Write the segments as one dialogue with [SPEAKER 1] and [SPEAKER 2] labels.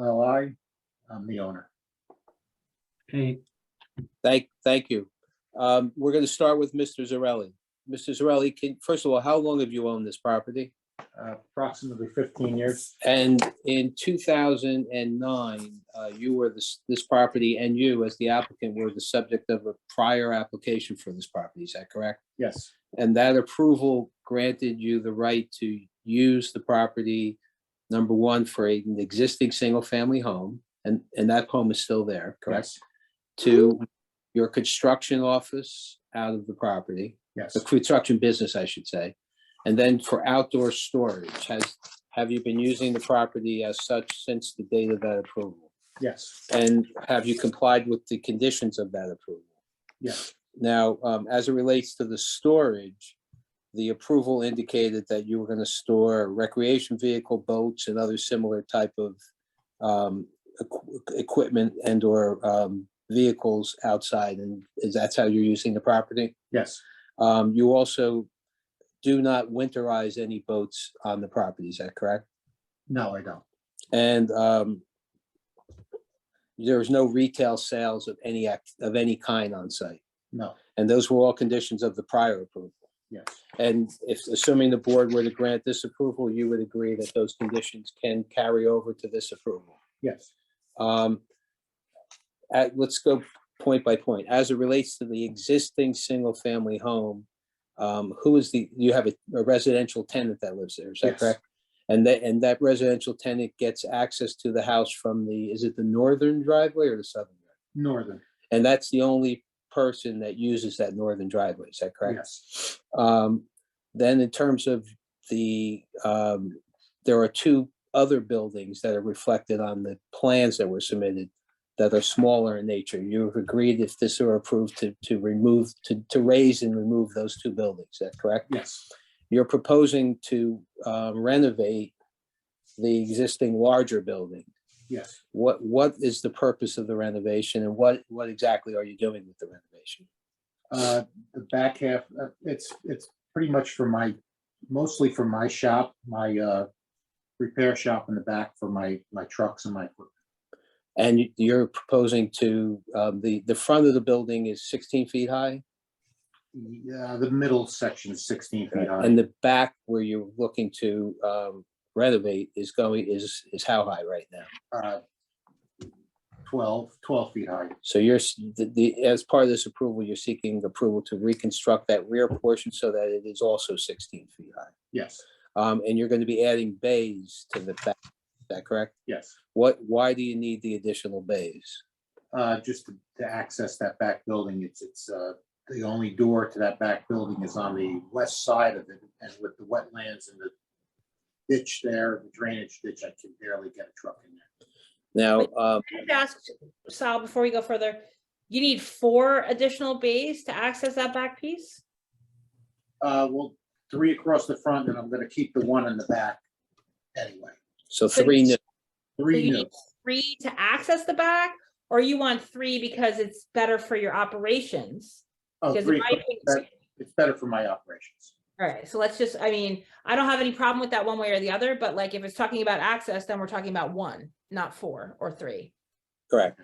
[SPEAKER 1] LLI. I'm the owner.
[SPEAKER 2] Okay,
[SPEAKER 3] Thank, thank you. Um, We're going to start with Mr. Zarelli. Mr. Zarelli, can, first of all, how long have you owned this property?
[SPEAKER 1] Uh, Approximately 15 years.
[SPEAKER 3] And in 2009, uh, you were this, this property and you as the applicant were the subject of a prior application for this property, is that correct?
[SPEAKER 1] Yes,
[SPEAKER 3] And that approval granted you the right to use the property, number one, for an existing single-family home, and, and that home is still there, correct?
[SPEAKER 1] yes,
[SPEAKER 3] To your construction office out of the property,
[SPEAKER 1] yes.
[SPEAKER 3] the construction business, I should say. And then for outdoor storage, has, have you been using the property as such since the date of that approval?
[SPEAKER 1] Yes,
[SPEAKER 3] And have you complied with the conditions of that approval?
[SPEAKER 1] yes,
[SPEAKER 3] Now, um, as it relates to the storage, the approval indicated that you were gonna store recreation vehicle, boats and other similar type of um, equ- equipment and or um, vehicles outside and is that's how you're using the property?
[SPEAKER 1] yes,
[SPEAKER 3] Um, you also do not winterize any boats on the property, is that correct?
[SPEAKER 1] no, I don't.
[SPEAKER 3] And, um, there is no retail sales of any act, of any kind on site.
[SPEAKER 1] No,
[SPEAKER 3] And those were all conditions of the prior approval.
[SPEAKER 1] yes,
[SPEAKER 3] And if, assuming the board were to grant this approval, you would agree that those conditions can carry over to this approval.
[SPEAKER 1] yes,
[SPEAKER 3] Um, at- let's go point by point. As it relates to the existing single-family home, um, who is the, you have a a residential tenant that lives there, is that
[SPEAKER 1] Yes.
[SPEAKER 3] correct? And that, and that residential tenant gets access to the house from the, is it the northern driveway or the southern? driveway?
[SPEAKER 1] northern,
[SPEAKER 3] And that's the only person that uses that northern driveway, is that correct?
[SPEAKER 1] yes,
[SPEAKER 3] Um, then in terms of the, um, there are two other buildings that are reflected on the plans that were submitted that are smaller in nature. You've agreed if this were approved to, to remove, to, to raise and remove those two buildings, is that correct?
[SPEAKER 1] yes,
[SPEAKER 3] You're proposing to uh, renovate the existing larger building.
[SPEAKER 1] yes.
[SPEAKER 3] What, what is the purpose of the renovation and what, what exactly are you doing with the renovation?
[SPEAKER 1] Uh, The back half, uh, it's, it's pretty much for my, mostly for my shop, my uh, repair shop in the back for my, my trucks and my equipment.
[SPEAKER 3] And you- you're proposing to, um, the, the front of the building is 16 feet high?
[SPEAKER 1] Yeah, the middle section is 16 feet high.
[SPEAKER 3] And the back where you're looking to um, renovate is going, is, is how high right now?
[SPEAKER 1] uh, 12, 12 feet high.
[SPEAKER 3] So you're, s- the- the, as part of this approval, you're seeking approval to reconstruct that rear portion so that it is also 16 feet high.
[SPEAKER 1] Yes,
[SPEAKER 3] Um, And you're going to be adding bays to the back, is that correct?
[SPEAKER 1] yes.
[SPEAKER 3] What, why do you need the additional bays?
[SPEAKER 1] Uh, just to to access that back building, it's, it's, uh, the only door to that back building is on the west side of it. And with the wetlands and the ditch there, the drainage ditch, I can barely get a truck in there.
[SPEAKER 3] Now, um,
[SPEAKER 4] I just asked Sal, before we go further, you need four additional bays to access that back piece?
[SPEAKER 1] Uh, well, three across the front and I'm gonna keep the one in the back anyway.
[SPEAKER 3] so
[SPEAKER 4] So
[SPEAKER 3] three, new-
[SPEAKER 4] So
[SPEAKER 1] Three
[SPEAKER 4] you
[SPEAKER 1] new,
[SPEAKER 4] need Three to access the back, or you want three because it's better for your operations?
[SPEAKER 1] oh,
[SPEAKER 4] Because in
[SPEAKER 1] three,
[SPEAKER 4] my
[SPEAKER 1] that-
[SPEAKER 4] opinion,
[SPEAKER 1] it's better for my operations.
[SPEAKER 4] all right, so let's just, I mean, I don't have any problem with that one way or the other, but like if it's talking about access, then we're talking about one, not four or three.
[SPEAKER 3] correct.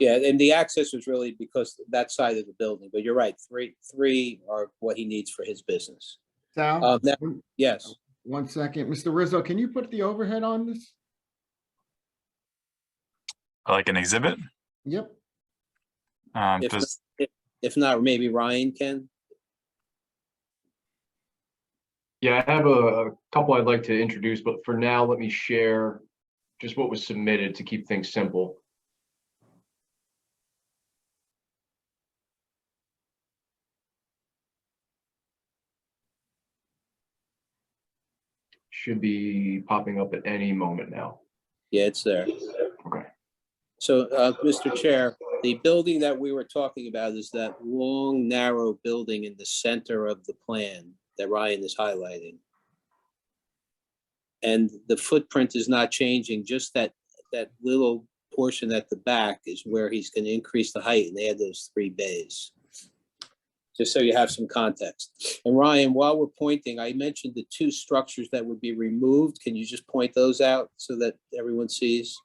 [SPEAKER 3] Yeah, and the access is really because that side of the building, but you're right, three, three are what he needs for his business.
[SPEAKER 5] Sal,
[SPEAKER 3] Um, now-
[SPEAKER 5] one-
[SPEAKER 3] Yes.
[SPEAKER 5] one second. Mr. Rizzo, can you put the overhead on this?
[SPEAKER 6] Like an exhibit?
[SPEAKER 5] Yep,
[SPEAKER 6] Um,
[SPEAKER 3] If
[SPEAKER 6] does,
[SPEAKER 3] If not, maybe Ryan can.
[SPEAKER 7] Yeah, I have a, a couple I'd like to introduce, but for now, let me share just what was submitted to keep things simple. Should be popping up at any moment now.
[SPEAKER 3] Yeah, it's there.
[SPEAKER 7] Okay.
[SPEAKER 3] So, uh, Mr. Chair, the building that we were talking about is that long, narrow building in the center of the plan that Ryan is highlighting. And the footprint is not changing, just that, that little portion at the back is where he's going to increase the height and add those three bays. Just so you have some context. And Ryan, while we're pointing, I mentioned the two structures that would be removed. Can you just point those out so that everyone sees?